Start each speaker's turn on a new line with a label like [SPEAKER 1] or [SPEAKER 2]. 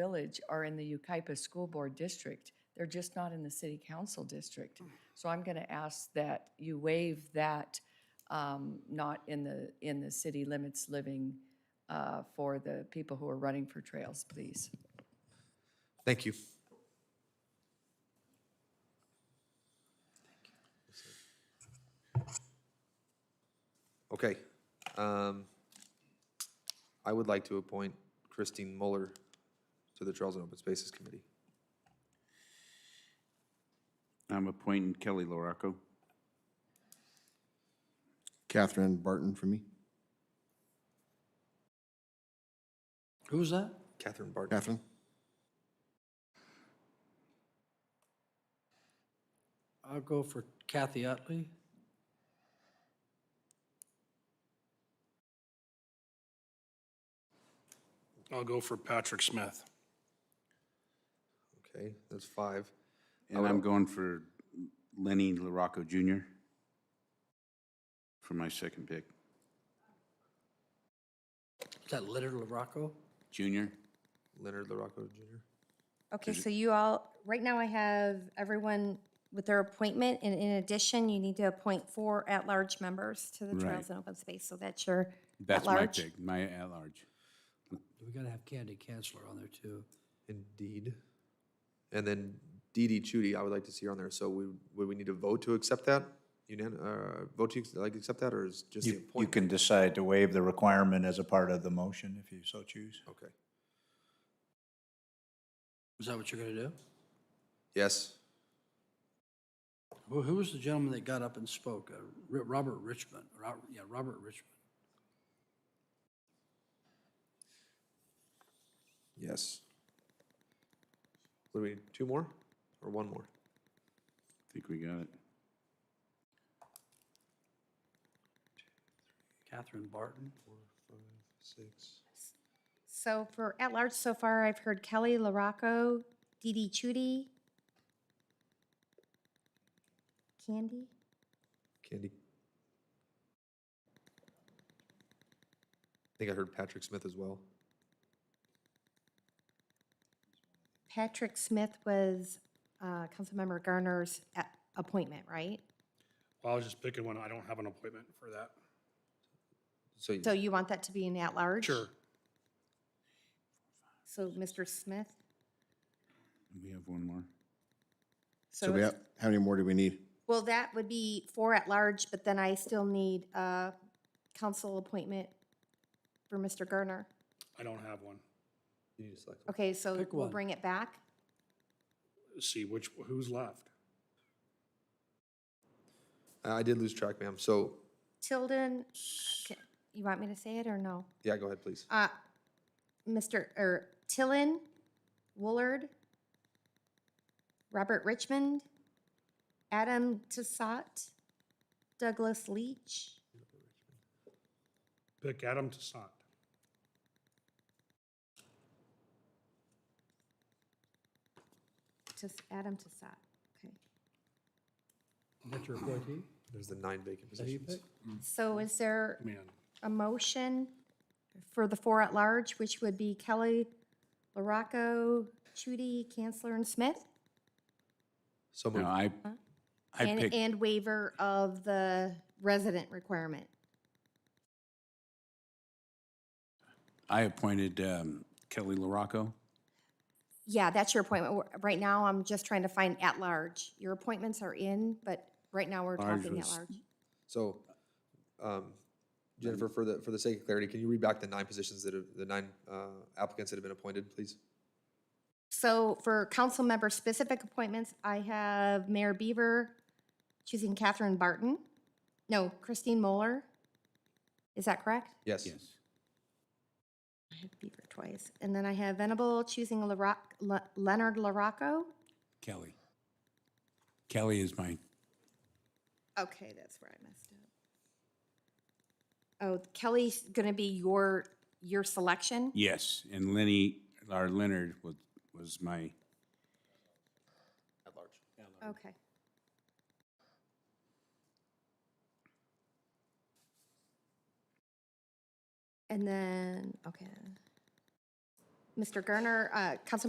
[SPEAKER 1] Village are in the Ucaipa School Board District. They're just not in the City Council District. So I'm going to ask that you waive that, um, not in the, in the city limits living uh, for the people who are running for trails, please.
[SPEAKER 2] Thank you. Okay. um, I would like to appoint Christine Muller to the Trails and Open Spaces Committee.
[SPEAKER 3] I'm appointing Kelly Loraco.
[SPEAKER 4] Catherine Barton for me.
[SPEAKER 5] Who's that?
[SPEAKER 2] Catherine Barton.
[SPEAKER 4] Catherine?
[SPEAKER 5] I'll go for Kathy Utley.
[SPEAKER 6] I'll go for Patrick Smith.
[SPEAKER 2] Okay, that's five.
[SPEAKER 3] And I'm going for Lenny Loraco Jr. for my second pick.
[SPEAKER 5] Is that Leonard LaRocco?
[SPEAKER 3] Junior?
[SPEAKER 2] Leonard LaRocco Jr.
[SPEAKER 7] Okay, so you all, right now I have everyone with their appointment, and in addition, you need to appoint four at-large members to the Trails
[SPEAKER 3] Right.
[SPEAKER 7] and Open Space, so that's your
[SPEAKER 3] That's my
[SPEAKER 7] at-large.
[SPEAKER 3] pick, my at-large.
[SPEAKER 5] We gotta have Candy Kanzler on there too.
[SPEAKER 2] Indeed. And then Dee Dee Chudy, I would like to see her on there. So we, would we need to vote to accept that? Unan, uh, vote to, like, accept that, or is just the
[SPEAKER 8] You you
[SPEAKER 2] appointment?
[SPEAKER 8] can decide to waive the requirement as a part of the motion if you so choose.
[SPEAKER 2] Okay.
[SPEAKER 5] Is that what you're gonna do?
[SPEAKER 2] Yes.
[SPEAKER 5] Who, who was the gentleman that got up and spoke? Uh, Ri- Robert Richmond, Robert, yeah, Robert Richmond.
[SPEAKER 2] Yes. What do we, need? two more or one more?
[SPEAKER 3] I think we got it.
[SPEAKER 5] Catherine Barton.
[SPEAKER 2] Six.
[SPEAKER 7] So for at-large so far, I've heard Kelly LaRocco, Dee Dee Chudy, Candy,
[SPEAKER 2] Candy. I think I heard Patrick Smith as well.
[SPEAKER 7] Patrick Smith was uh, Councilmember Garner's a- appointment, right?
[SPEAKER 6] Well, I was just picking one. I don't have an appointment for that.
[SPEAKER 2] So you-
[SPEAKER 7] So you want that to be an at-large?
[SPEAKER 6] Sure.
[SPEAKER 7] So Mr. Smith?
[SPEAKER 3] We have one more.
[SPEAKER 4] So we
[SPEAKER 7] it's-
[SPEAKER 4] have, how many more do we need?
[SPEAKER 7] Well, that would be four at large, but then I still need a council appointment for Mr. Garner.
[SPEAKER 6] I don't have one.
[SPEAKER 2] you need to select one.
[SPEAKER 7] Okay, so
[SPEAKER 5] Pick
[SPEAKER 7] we'll
[SPEAKER 5] one.
[SPEAKER 7] bring it back.
[SPEAKER 6] See which, who's left?
[SPEAKER 2] I I did lose track, ma'am. So,
[SPEAKER 7] Tilden, okay, you want me to say it or no?
[SPEAKER 2] yeah, go ahead, please.
[SPEAKER 7] Uh, Mr., or Tillen, Woolard, Robert Richmond, Adam Tassat, Douglas Leach,
[SPEAKER 6] Pick Adam Toussaint.
[SPEAKER 7] just Adam Tassat, okay.
[SPEAKER 5] That's your appointee?
[SPEAKER 2] There's the nine vacant
[SPEAKER 5] Is that who you
[SPEAKER 2] positions.
[SPEAKER 5] picked?
[SPEAKER 7] So is there?
[SPEAKER 6] Man,
[SPEAKER 7] a motion for the four at large, which would be Kelly, LaRocco, Chudy, Canceller, and Smith?
[SPEAKER 2] So
[SPEAKER 3] No,
[SPEAKER 2] moved.
[SPEAKER 3] I, I
[SPEAKER 7] And,
[SPEAKER 3] picked,
[SPEAKER 7] and waiver of the resident requirement.
[SPEAKER 3] I appointed um, Kelly Loraco.
[SPEAKER 7] Yeah, that's your appointment. We're- Right now, I'm just trying to find at large. Your appointments are in, but right now we're
[SPEAKER 3] Large
[SPEAKER 7] talking at
[SPEAKER 3] was-
[SPEAKER 7] large.
[SPEAKER 2] So, um, Jennifer, for the, for the sake of clarity, can you read back the nine positions that have, the nine uh, applicants that have been appointed, please?
[SPEAKER 7] So for council member specific appointments, I have Mayor Beaver choosing Catherine Barton. No, Christine Moeller. Is that correct?
[SPEAKER 2] Yes.
[SPEAKER 3] Yes.
[SPEAKER 7] I have Beaver twice. And then I have Venable choosing LaRoc, Le- Leonard LaRocco.
[SPEAKER 3] Kelly. Kelly is my,
[SPEAKER 7] Okay, that's where I messed up. Oh, Kelly's going to be your, your selection?
[SPEAKER 3] yes, and Lenny, or Leonard was, was my,
[SPEAKER 7] Okay. And then, okay. Mr. Garner, uh, Councilmember